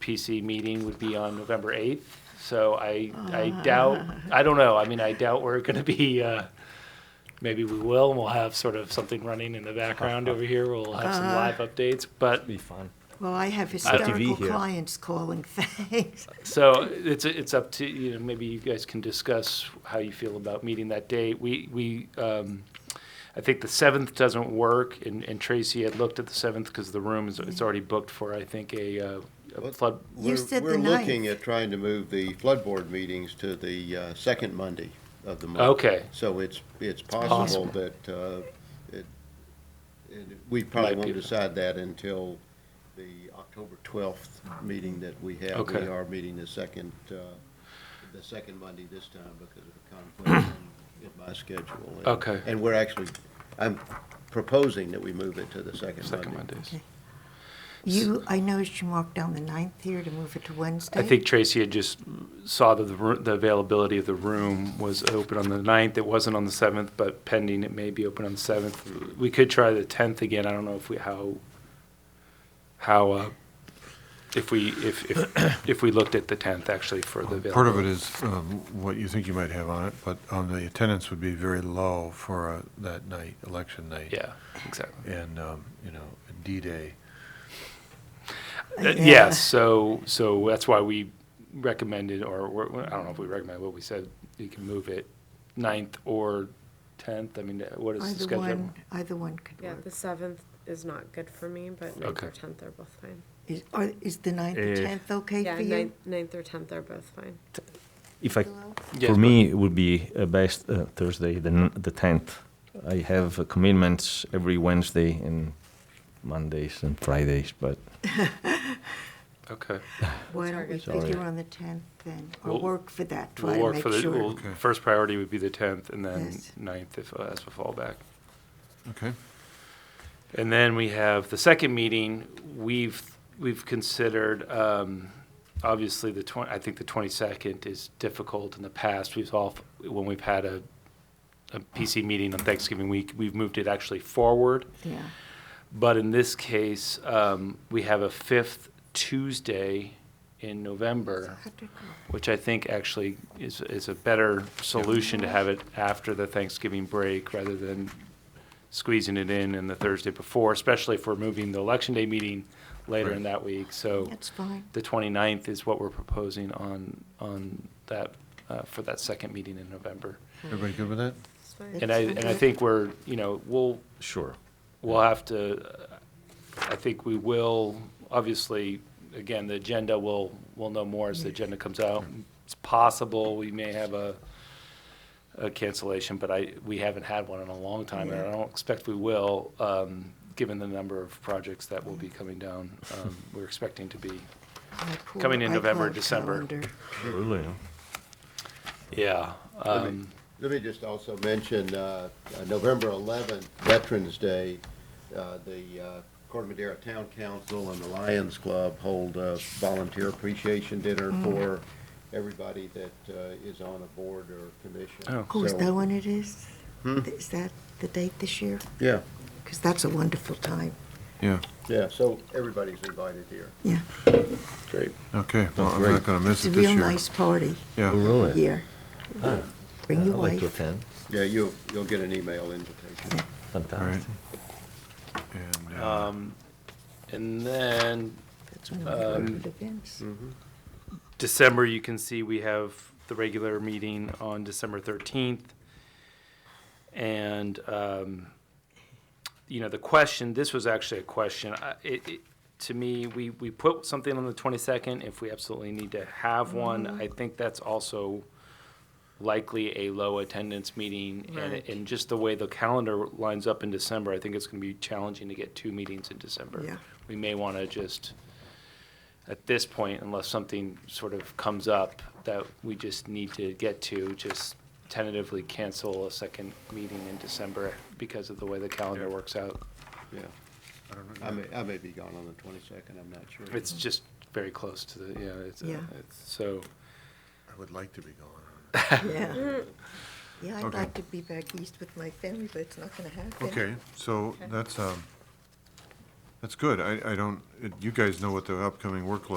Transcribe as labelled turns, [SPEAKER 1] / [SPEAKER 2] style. [SPEAKER 1] PC meeting would be on November 8th. So I, I doubt, I don't know. I mean, I doubt we're going to be, uh, maybe we will, and we'll have sort of something running in the background over here. We'll have some live updates, but
[SPEAKER 2] Be fun.
[SPEAKER 3] Well, I have hysterical
[SPEAKER 2] here.
[SPEAKER 3] clients calling, thanks.
[SPEAKER 1] So it's, it's up to, you know, maybe you guys can discuss how you feel about meeting that date. We, we, um, I think the seventh doesn't work and, and Tracy had looked at the seventh because the room is, it's already booked for, I think, a, uh, a
[SPEAKER 4] What-
[SPEAKER 1] flood.
[SPEAKER 3] You
[SPEAKER 4] We're-
[SPEAKER 3] said the
[SPEAKER 4] We're looking
[SPEAKER 3] ninth.
[SPEAKER 4] at trying to move the flood board meetings to the uh, second Monday of the month.
[SPEAKER 1] Okay.
[SPEAKER 4] So it's, it's
[SPEAKER 1] possible.
[SPEAKER 4] possible that, uh, it, it- we probably
[SPEAKER 1] Might be-
[SPEAKER 4] won't decide that until the October 12th meeting that we have.
[SPEAKER 1] Okay.
[SPEAKER 4] We are meeting the second, uh, the second Monday this time because of a conflict in my schedule. And-
[SPEAKER 1] Okay.
[SPEAKER 4] And we're actually, I'm proposing that we move it to the second Monday.
[SPEAKER 1] Second Mondays.
[SPEAKER 3] You, I noticed you marked down the ninth here to move it to Wednesday.
[SPEAKER 1] I think Tracy had just saw that the, roo- the availability of the room was open on the ninth. It wasn't on the seventh, but pending, it may be open on the seventh. We could try the tenth again. I don't know if we, how, how, uh, if we, if, if, if we looked at the tenth actually for the availability.
[SPEAKER 5] Part of it is um, what you think you might have on it, but um, the attendance would be very low for uh, that night, election night.
[SPEAKER 1] Yeah,
[SPEAKER 3] Uh,
[SPEAKER 1] exactly.
[SPEAKER 5] And, um, you know, D-Day.
[SPEAKER 1] Uh,
[SPEAKER 3] Yeah.
[SPEAKER 1] Yes, so, so that's why we recommended, or, we're- I don't know if we recommend, but we said you can move it ninth or tenth. I mean, uh, what is the
[SPEAKER 3] Either
[SPEAKER 1] schedule?
[SPEAKER 3] one, either one could
[SPEAKER 6] Yeah, the
[SPEAKER 3] work.
[SPEAKER 6] seventh is not good for me, but ninth
[SPEAKER 1] Okay.
[SPEAKER 6] or tenth are both fine.
[SPEAKER 3] Is, are- is the ninth or
[SPEAKER 2] Eh.
[SPEAKER 3] tenth okay
[SPEAKER 6] Yeah,
[SPEAKER 3] for you?
[SPEAKER 6] ninth, ninth or tenth are both fine.
[SPEAKER 2] If I,
[SPEAKER 3] Hello?
[SPEAKER 1] Yes,
[SPEAKER 2] for
[SPEAKER 1] but-
[SPEAKER 2] me, it would be uh, best uh, Thursday, the n- the tenth. I have uh, commitments every Wednesday and Mondays and Fridays, but
[SPEAKER 1] Okay.
[SPEAKER 3] Why don't we
[SPEAKER 2] Sorry.
[SPEAKER 3] figure on the tenth then, or
[SPEAKER 1] We'll-
[SPEAKER 3] work for that, try
[SPEAKER 1] We'll
[SPEAKER 3] to
[SPEAKER 1] work for
[SPEAKER 3] make
[SPEAKER 1] the,
[SPEAKER 3] sure.
[SPEAKER 1] we'll- first priority would be the 10th and then
[SPEAKER 3] Yes.
[SPEAKER 1] 9th if, uh, as a fallback.
[SPEAKER 5] Okay.
[SPEAKER 1] And then we have the second meeting, we've, we've considered, um, obviously the 20, I think the 22nd is difficult in the past. We've all, when we've had a, a PC meeting on Thanksgiving week, we've moved it actually forward.
[SPEAKER 3] Yeah,
[SPEAKER 1] But in this case, um, we have a fifth Tuesday in November. which I think actually is, is a better solution to have it after the Thanksgiving break rather than squeezing it in in the Thursday before, especially if we're moving the Election Day meeting later in
[SPEAKER 5] Right.
[SPEAKER 1] that week. So
[SPEAKER 3] that's fine.
[SPEAKER 1] the 29th is what we're proposing on, on that, uh, for that second meeting in November.
[SPEAKER 5] Everybody good with that?
[SPEAKER 6] It's fine.
[SPEAKER 1] And I, and I think we're, you know, we'll,
[SPEAKER 2] sure.
[SPEAKER 1] We'll have to, uh, I think we will, obviously, again, the agenda, we'll, we'll know more as the agenda comes out. It's possible we may have a, a cancellation, but I, we haven't had one in a long time, and I don't expect we will, um, given the number of projects that will be coming down. Um, We're expecting to be,
[SPEAKER 3] My poor
[SPEAKER 1] Coming in November,
[SPEAKER 3] iCloud
[SPEAKER 1] December.
[SPEAKER 3] calendar.
[SPEAKER 2] Really?
[SPEAKER 1] yeah.
[SPEAKER 4] Let
[SPEAKER 1] um,
[SPEAKER 4] me- Let me just also mention, uh, uh, November 11th, Veterans Day, uh, the uh, Corte Madera Town Council and the Lions Club hold a volunteer appreciation dinner
[SPEAKER 3] Mm.
[SPEAKER 4] for everybody that uh, is on a board or commission.
[SPEAKER 1] Oh.
[SPEAKER 3] Oh, is
[SPEAKER 4] So-
[SPEAKER 3] that when it is?
[SPEAKER 1] Hmm?
[SPEAKER 3] Is that the date this year?
[SPEAKER 4] Yeah,
[SPEAKER 3] Because that's a wonderful time,
[SPEAKER 5] Yeah,
[SPEAKER 4] yeah, so everybody's invited here.
[SPEAKER 3] yeah.
[SPEAKER 4] Great.
[SPEAKER 5] okay. Well, I'm not going to
[SPEAKER 3] It's
[SPEAKER 5] miss
[SPEAKER 3] a
[SPEAKER 5] it this
[SPEAKER 3] real
[SPEAKER 5] year.
[SPEAKER 3] nice party
[SPEAKER 5] Yeah,
[SPEAKER 1] Oh,
[SPEAKER 2] Really?
[SPEAKER 3] here. Bring
[SPEAKER 2] I'd
[SPEAKER 3] your
[SPEAKER 2] like to
[SPEAKER 3] wife.
[SPEAKER 2] attend.
[SPEAKER 4] Yeah, you'll, you'll get an email invitation.
[SPEAKER 5] all right.
[SPEAKER 2] Fantastic.
[SPEAKER 5] And, uh,
[SPEAKER 1] um, And then
[SPEAKER 3] That's one of my
[SPEAKER 1] Um,
[SPEAKER 3] favorite events.
[SPEAKER 1] December, you can see we have the regular meeting on December 13th. And, um, you know, the question, this was actually a question, I- it, it, to me, we, we put something on the 22nd if we absolutely need to have one. I think that's also likely a low attendance meeting. And,
[SPEAKER 6] Right.
[SPEAKER 1] and just the way the calendar lines up in December, I think it's going to be challenging to get two meetings in December.
[SPEAKER 3] Yeah.
[SPEAKER 1] We may want to just, at this point, unless something sort of comes up that we just need to get to, just tentatively cancel a second meeting in December because of the way the calendar works out.
[SPEAKER 4] Yeah. I may, I may be gone on the 22nd, I'm not sure.
[SPEAKER 1] It's just very close to the, yeah, it's, uh,
[SPEAKER 3] Yeah.
[SPEAKER 1] it's- so,
[SPEAKER 5] I would like to be going.
[SPEAKER 3] Yeah. Yeah, I'd
[SPEAKER 5] Okay.
[SPEAKER 3] like to be back east with my family, but it's not gonna happen.
[SPEAKER 5] Okay, so that's, um, that's good. I, I don't, it- you guys know what the upcoming workload